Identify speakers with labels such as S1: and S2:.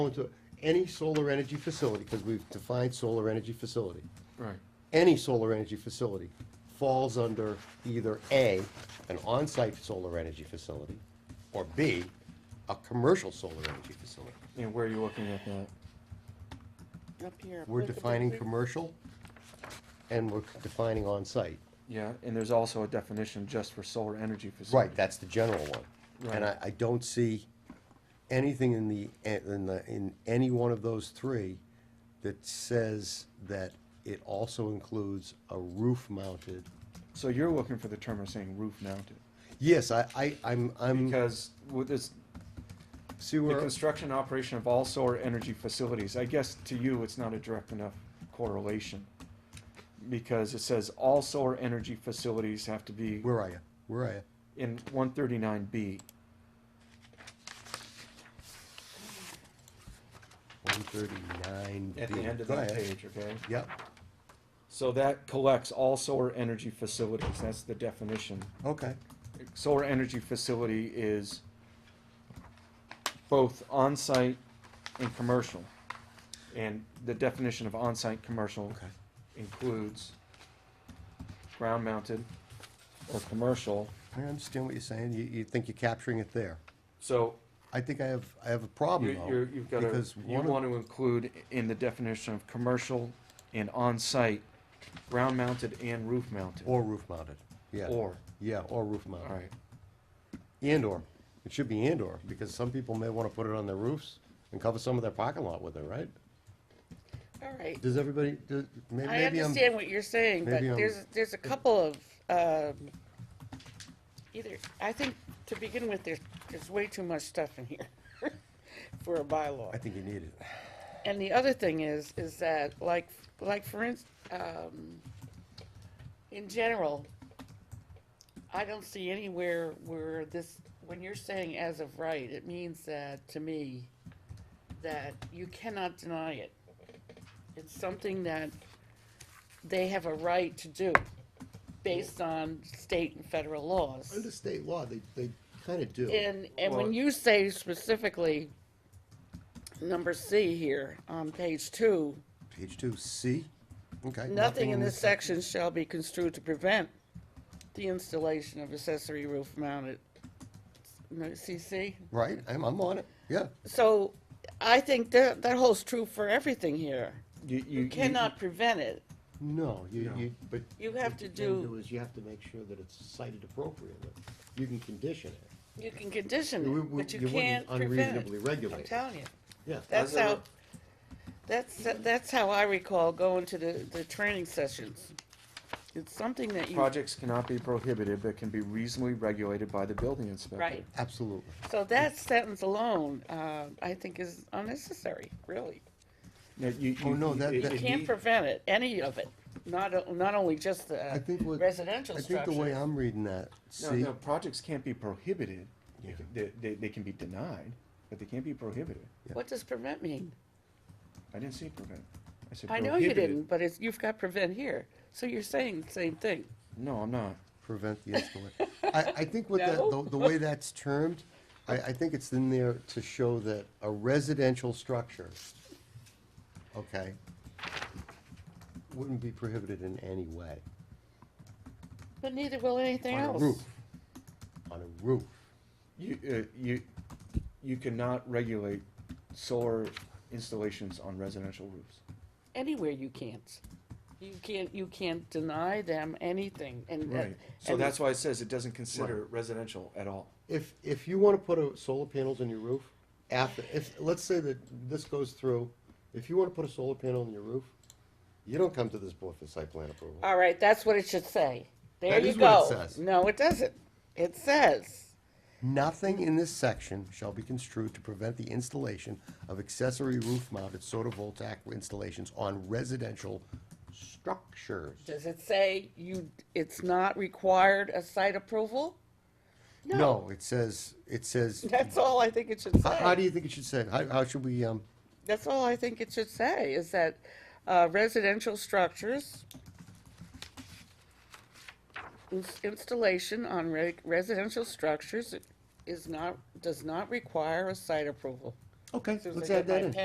S1: into any solar energy facility, because we've defined solar energy facility,
S2: Right.
S1: any solar energy facility falls under either A, an on-site solar energy facility, or B, a commercial solar energy facility.
S2: And where are you looking at that?
S3: Up here.
S1: We're
S3: applicable
S1: defining
S3: to-
S1: commercial, and we're defining on-site.
S2: Yeah, and there's also a definition just for solar energy facility.
S1: Right, that's the general one. And I,
S2: Right.
S1: I don't see anything in the, in the, in any one of those three that says that it also includes a roof-mounted.
S2: So you're looking for the term of saying roof mounted,
S1: Yes, I, I, I'm, I'm,
S2: because with this,
S1: see
S2: the
S1: where,
S2: construction and operation of all solar energy facilities, I guess to you, it's not a direct enough correlation. Because it says all solar energy facilities have to be
S1: where are you? Where are you?
S2: in one thirty-nine B.
S1: One thirty-nine B.
S2: At the end of that page, okay?
S1: Yep,
S2: So that collects all solar energy facilities, that's the definition.
S1: okay,
S2: solar energy facility is both on-site and commercial. And the definition of on-site commercial
S1: okay.
S2: includes ground-mounted or commercial.
S1: I understand what you're saying. You, you think you're capturing it there.
S2: So
S1: I think I have, I have a
S2: you-
S1: problem
S2: you're,
S1: though.
S2: you've got to,
S1: because
S2: you
S1: one of-
S2: want to include in the definition of commercial and on-site, ground-mounted and roof-mounted.
S1: Or roof-mounted, yeah.
S2: Or,
S1: Yeah, or roof-mounted.
S2: all right,
S1: And/or, it should be and/or, because some people may want to put it on their roofs and cover some of their parking lot with it, right?
S3: All right.
S1: Does everybody, does, may-
S3: I
S1: maybe I'm,
S3: understand what you're saying, but
S1: maybe I'm-
S3: there's, there's a couple of, um, either, I think to begin with, there's, there's way too much stuff in here for a
S1: I
S3: bylaw.
S1: think you need it.
S3: And the other thing is, is that like, like for instance, um, in general, I don't see anywhere where this, when you're saying as of right, it means that, to me, that you cannot deny it. It's something that they have a right to do based on state and federal
S1: Under
S3: laws.
S1: state law, they, they kind of do.
S3: And, and
S2: Well-
S3: when you say specifically, number C here on page two,
S1: Page two, C? Okay.
S3: Nothing in this section shall be construed to prevent the installation of accessory roof mounted, no, CC?
S1: Right, I'm, I'm on it, yeah.
S3: So I think that, that holds true for everything here.
S2: you, you.
S3: You
S2: you-
S3: cannot prevent it.
S1: No, you,
S2: No.
S1: you, but.
S3: You have
S1: what
S3: to
S1: you can
S3: do-
S1: Is you have to make sure that it's cited appropriately. You can condition it.
S3: You can condition
S1: We-
S3: it,
S1: we-
S3: but
S1: you
S3: you
S1: wouldn't
S3: can't prevent
S1: unreasonably
S3: it.
S1: regulate
S3: I'm
S1: it.
S3: telling you.
S1: Yeah.
S3: That's
S2: As a-
S3: how, that's, that's how I recall going to the, the training sessions. It's something that you,
S2: Projects cannot be prohibited, but can be reasonably regulated by the building inspector.
S3: right.
S1: Absolutely.
S3: So that sentence alone, uh, I think is unnecessary, really.
S2: No, you,
S1: Oh,
S2: you-
S1: no,
S2: you-
S1: that-
S2: it-
S1: that-
S2: it
S3: Can't
S2: need-
S3: prevent it, any of it, not, not only just
S1: I
S3: the
S1: think what.
S3: residential
S1: I think the way
S3: structure.
S1: I'm reading that,
S2: No,
S1: C,
S2: no, projects can't be prohibited. They
S1: Yeah.
S2: can- They, they, they can be denied, but they can't be prohibited.
S3: What does prevent mean?
S2: I didn't say prevent. I said
S3: I know you
S2: prohibited.
S3: didn't, but it's, you've got prevent here, so you're saying the same thing.
S2: No, I'm not.
S1: prevent the installation. I, I think what that,
S3: No?
S1: the, the way that's termed, I, I think it's in there to show that a residential structure, okay, wouldn't be prohibited in any way.
S3: But neither will anything
S1: On a
S3: else.
S1: roof, on a roof.
S2: You, uh, you, you cannot regulate solar installations on residential roofs.
S3: Anywhere you can't. You can't, you can't deny them anything, and. uh,
S2: Right. So
S3: and-
S2: that's why it says it doesn't consider residential at all.
S1: If, if you wanna put a solar panels on your roof, after, if, let's say that this goes through, if you wanna put a solar panel on your roof, you don't come to this board for site plan approval.
S3: All right, that's what it should say. There
S1: That
S3: you
S1: is what
S3: go.
S1: it says.
S3: No, it doesn't. It says,
S1: Nothing in this section shall be construed to prevent the installation of accessory roof-mounted photovoltaic installations on residential structures.
S3: does it say you, it's not required a site approval?
S1: No, it says, it says,
S3: That's all I think it should
S1: how, how do
S3: say.
S1: you think it should say? it? How, how should we, um,
S3: That's all I think it should say, is that uh, residential structures, ins- installation on re- residential structures is not, does not require a site approval.
S1: Okay,
S3: As soon as
S1: let's
S3: I get
S1: add that
S3: my
S1: in.